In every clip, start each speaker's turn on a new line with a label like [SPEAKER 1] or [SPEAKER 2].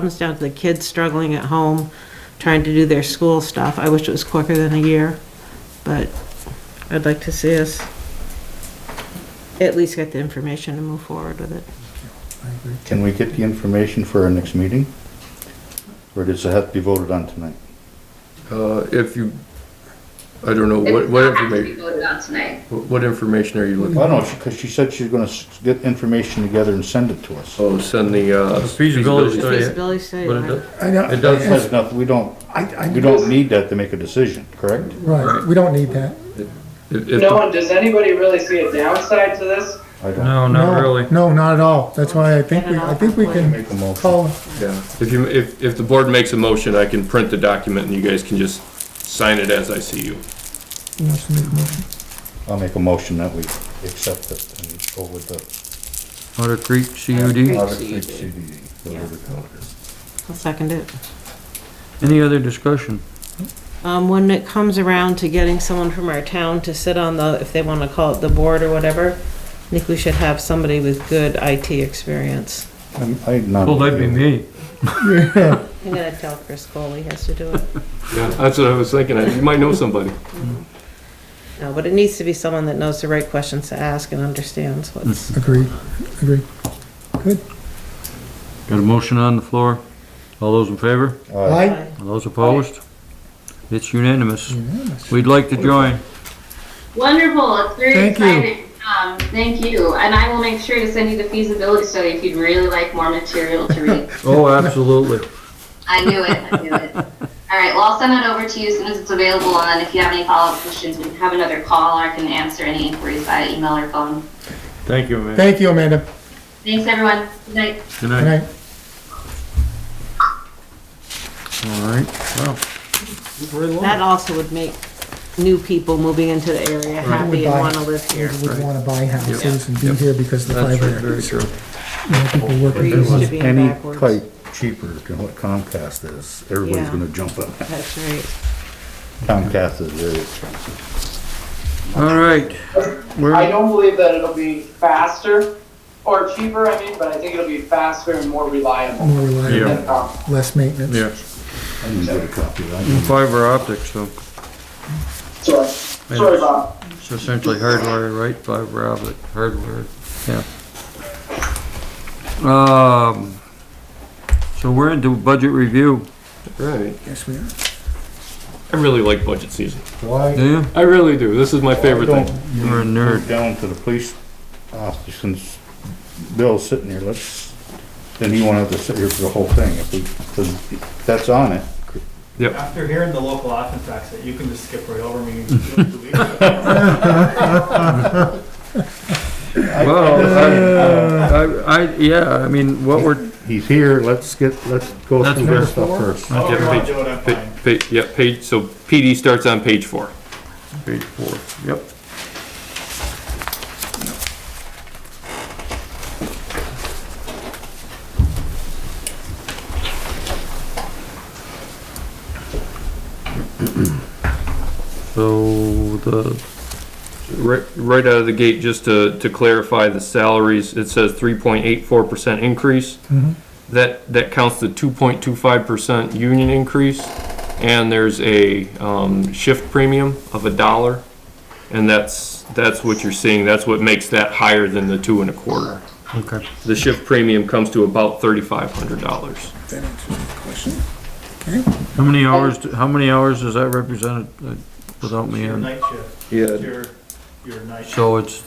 [SPEAKER 1] comes down to the kids struggling at home, trying to do their school stuff. I wish it was quicker than a year, but I'd like to see us at least get the information and move forward with it.
[SPEAKER 2] Can we get the information for our next meeting? Or does it have to be voted on tonight?
[SPEAKER 3] Uh, if you, I don't know,
[SPEAKER 4] It
[SPEAKER 3] what,
[SPEAKER 4] does
[SPEAKER 3] what
[SPEAKER 4] not have to be
[SPEAKER 3] information,
[SPEAKER 4] voted on tonight.
[SPEAKER 3] what information are you
[SPEAKER 2] I
[SPEAKER 3] looking?
[SPEAKER 2] don't know, because she said she's gonna s- get information together and send it to us.
[SPEAKER 3] Oh, send the, uh.
[SPEAKER 5] Feasibility
[SPEAKER 1] The
[SPEAKER 5] study.
[SPEAKER 1] feasibility study,
[SPEAKER 5] But it
[SPEAKER 1] right?
[SPEAKER 5] does-
[SPEAKER 6] I know.
[SPEAKER 5] It does-
[SPEAKER 2] It has nothing, we don't,
[SPEAKER 6] I, I.
[SPEAKER 2] we don't need that to make a decision, correct?
[SPEAKER 6] Right, we don't need that.
[SPEAKER 3] If,
[SPEAKER 7] No
[SPEAKER 3] if,
[SPEAKER 7] one, does anybody really see a downside to this?
[SPEAKER 2] I don't.
[SPEAKER 5] No, not
[SPEAKER 6] No,
[SPEAKER 5] really.
[SPEAKER 6] No, not at all. That's why I think, we I think we can
[SPEAKER 2] Make a motion.
[SPEAKER 6] call,
[SPEAKER 3] yeah, if you, if, if the board makes a motion, I can print the document and you guys can just sign it as I see you.
[SPEAKER 6] who wants to make a motion?
[SPEAKER 2] I'll make a motion that we accept it and go with the
[SPEAKER 5] Otter Creek CUD.
[SPEAKER 2] Otter Creek CDD, E, whatever the hell it is.
[SPEAKER 1] I'll second it.
[SPEAKER 5] Any other discussion?
[SPEAKER 1] Um, when it comes around to getting someone from our town to sit on the, if they want to call it the board or whatever, I think we should have somebody with good IT experience.
[SPEAKER 2] I'm- I nominate.
[SPEAKER 5] Well, that'd be me.
[SPEAKER 1] I'm gonna tell Chris Cole he has to do it.
[SPEAKER 3] Yeah, that's what I was thinking, you might know somebody.
[SPEAKER 1] No, but it needs to be someone that knows the right questions to ask and understands what's.
[SPEAKER 6] Agreed, agreed. Good.
[SPEAKER 5] Got a motion on the floor? All those in favor?
[SPEAKER 2] Aye.
[SPEAKER 6] Aye.
[SPEAKER 5] All those opposed? It's unanimous.
[SPEAKER 6] Unanimous.
[SPEAKER 5] We'd like to join.
[SPEAKER 4] Wonderful, it's very
[SPEAKER 6] Thank you.
[SPEAKER 4] exciting. Um, thank you, and I will make sure to send you the feasibility study if you'd really like more material to read.
[SPEAKER 5] Oh, absolutely.
[SPEAKER 4] I knew it, I knew it. All right, well, I'll send it over to you as soon as it's available, and then if you have any follow-up questions, we can have another call, or I can answer any inquiries via email or phone.
[SPEAKER 5] Thank you, man.
[SPEAKER 6] Thank you, Amanda.
[SPEAKER 4] Thanks, everyone. Good night.
[SPEAKER 5] Good
[SPEAKER 6] Good
[SPEAKER 5] night.
[SPEAKER 6] night.
[SPEAKER 5] All right, well.
[SPEAKER 1] That also would make new people moving into the area happy and wanna live here.
[SPEAKER 6] We would wanna buy houses and be here because of the
[SPEAKER 5] That's
[SPEAKER 6] fiber.
[SPEAKER 5] very true.
[SPEAKER 6] More people
[SPEAKER 1] We're
[SPEAKER 6] working.
[SPEAKER 1] used to
[SPEAKER 6] business.
[SPEAKER 1] being
[SPEAKER 2] Any
[SPEAKER 1] backwards.
[SPEAKER 2] type cheaper than what Comcast is, everybody's
[SPEAKER 1] Yeah.
[SPEAKER 2] gonna jump on that.
[SPEAKER 1] That's right.
[SPEAKER 2] Comcast is very expensive.
[SPEAKER 5] All right.
[SPEAKER 7] I
[SPEAKER 5] We're,
[SPEAKER 7] don't believe that it'll be faster or cheaper, I mean, but I think it'll be faster and more reliable
[SPEAKER 6] More reliable,
[SPEAKER 7] than, um,
[SPEAKER 6] less maintenance.
[SPEAKER 5] yeah,
[SPEAKER 2] I didn't get a copy of that.
[SPEAKER 1] Mm.
[SPEAKER 5] fiber optics, so
[SPEAKER 7] sorry, sorry, Bob.
[SPEAKER 5] it's essentially hardwire, right? Fiber optic, hardwire, yeah. Um, so we're into budget review,
[SPEAKER 3] Right,
[SPEAKER 6] Yes, we are.
[SPEAKER 3] I really like budget season,
[SPEAKER 2] Why?
[SPEAKER 5] do you?
[SPEAKER 3] I really do, this is my favorite
[SPEAKER 2] Don't
[SPEAKER 3] thing.
[SPEAKER 5] You're a nerd.
[SPEAKER 2] move down to the police officer since Bill's sitting here, let's, then he won't have to sit here for the whole thing. If we, 'cause that's on it.
[SPEAKER 8] After hearing the local options exit, you can just skip right over me. It's
[SPEAKER 5] Well, I, I, I- yeah, I mean, what we're,
[SPEAKER 2] He's here, let's get, let's go
[SPEAKER 5] That's
[SPEAKER 2] through
[SPEAKER 5] fair.
[SPEAKER 2] this stuff
[SPEAKER 5] That's
[SPEAKER 2] first.
[SPEAKER 8] However you want to do it, I'm
[SPEAKER 3] Pa-
[SPEAKER 8] fine.
[SPEAKER 3] pa- yeah, page, so PD starts on page four.
[SPEAKER 5] page four, yep. So the,
[SPEAKER 3] Right, right out of the gate, just to, to clarify the salaries, it says three point eight four percent increase. That, that counts the two point two five percent union increase, and there's a, um, shift premium of a dollar. And that's, that's what you're seeing, that's what makes that higher than the two and a quarter.
[SPEAKER 5] okay,
[SPEAKER 3] The shift premium comes to about thirty-five hundred dollars.
[SPEAKER 6] That answers the question.
[SPEAKER 5] how many hours, do- how many hours does that represent uh, without me
[SPEAKER 8] Your
[SPEAKER 5] on?
[SPEAKER 8] night shift,
[SPEAKER 3] Yeah.
[SPEAKER 8] your, your night shift.
[SPEAKER 5] So it's,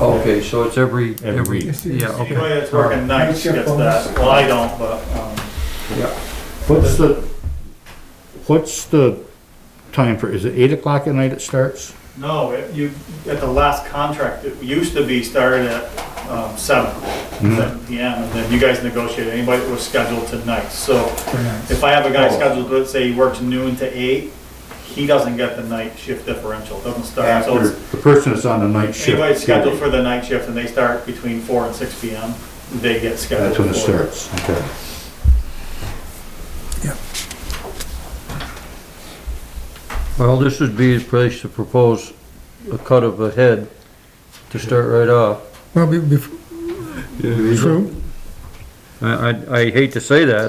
[SPEAKER 5] okay, so it's every, every,
[SPEAKER 6] Yes, it
[SPEAKER 5] yeah,
[SPEAKER 6] is.
[SPEAKER 5] okay.
[SPEAKER 8] Anybody that's working nights
[SPEAKER 6] Night shift
[SPEAKER 8] gets
[SPEAKER 6] bonus.
[SPEAKER 8] that, well, I don't, but, um,
[SPEAKER 2] What's the, what's the time for, is it eight o'clock at night it starts?
[SPEAKER 8] no, it- you, at the last contract, it used to be started at, um, seven,
[SPEAKER 5] Mm-hmm.
[SPEAKER 8] seven PM, and then you guys negotiated, anybody that was scheduled to night, so if I have a guy scheduled, let's say he works noon to eight, he doesn't get the night shift differential, doesn't start, so
[SPEAKER 2] After
[SPEAKER 8] it's
[SPEAKER 2] the person is on the night shift.
[SPEAKER 8] Anybody scheduled for the night shift and they start between four and six P M, they get scheduled.
[SPEAKER 2] That's when it
[SPEAKER 8] for
[SPEAKER 2] starts, okay.
[SPEAKER 5] Well, this would be a place to propose a cut of a head to start right off.
[SPEAKER 6] Well, be- before, true.
[SPEAKER 5] I, I, I hate to say that,